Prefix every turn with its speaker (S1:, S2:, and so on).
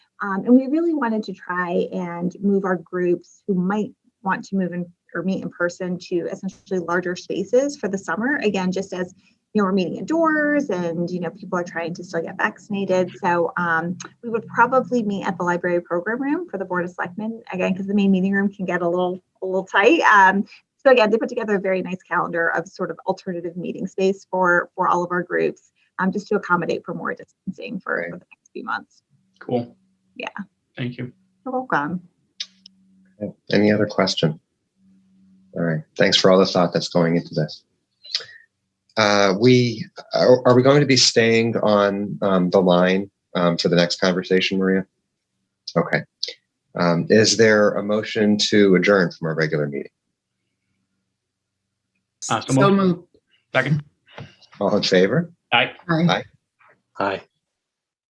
S1: Um, and we really wanted to try and move our groups who might want to move in or meet in person to essentially larger spaces for the summer. Again, just as you know, we're meeting indoors and you know, people are trying to still get vaccinated. So um, we would probably meet at the library program room for the Board of Selectmen again, because the main meeting room can get a little a little tight. Um, so again, they put together a very nice calendar of sort of alternative meeting space for for all of our groups, um, just to accommodate for more distancing for, for the next few months.
S2: Cool.
S1: Yeah.
S2: Thank you.
S1: You're welcome.
S3: Any other question? All right. Thanks for all the thought that's going into this. Uh, we are, are we going to be staying on um, the line um, for the next conversation, Maria? Okay. Um, is there a motion to adjourn from our regular meeting?
S2: Uh, so
S4: So moved.
S2: Second.
S3: All in favor?
S2: Aye.
S4: Aye.
S3: Aye.
S5: Aye.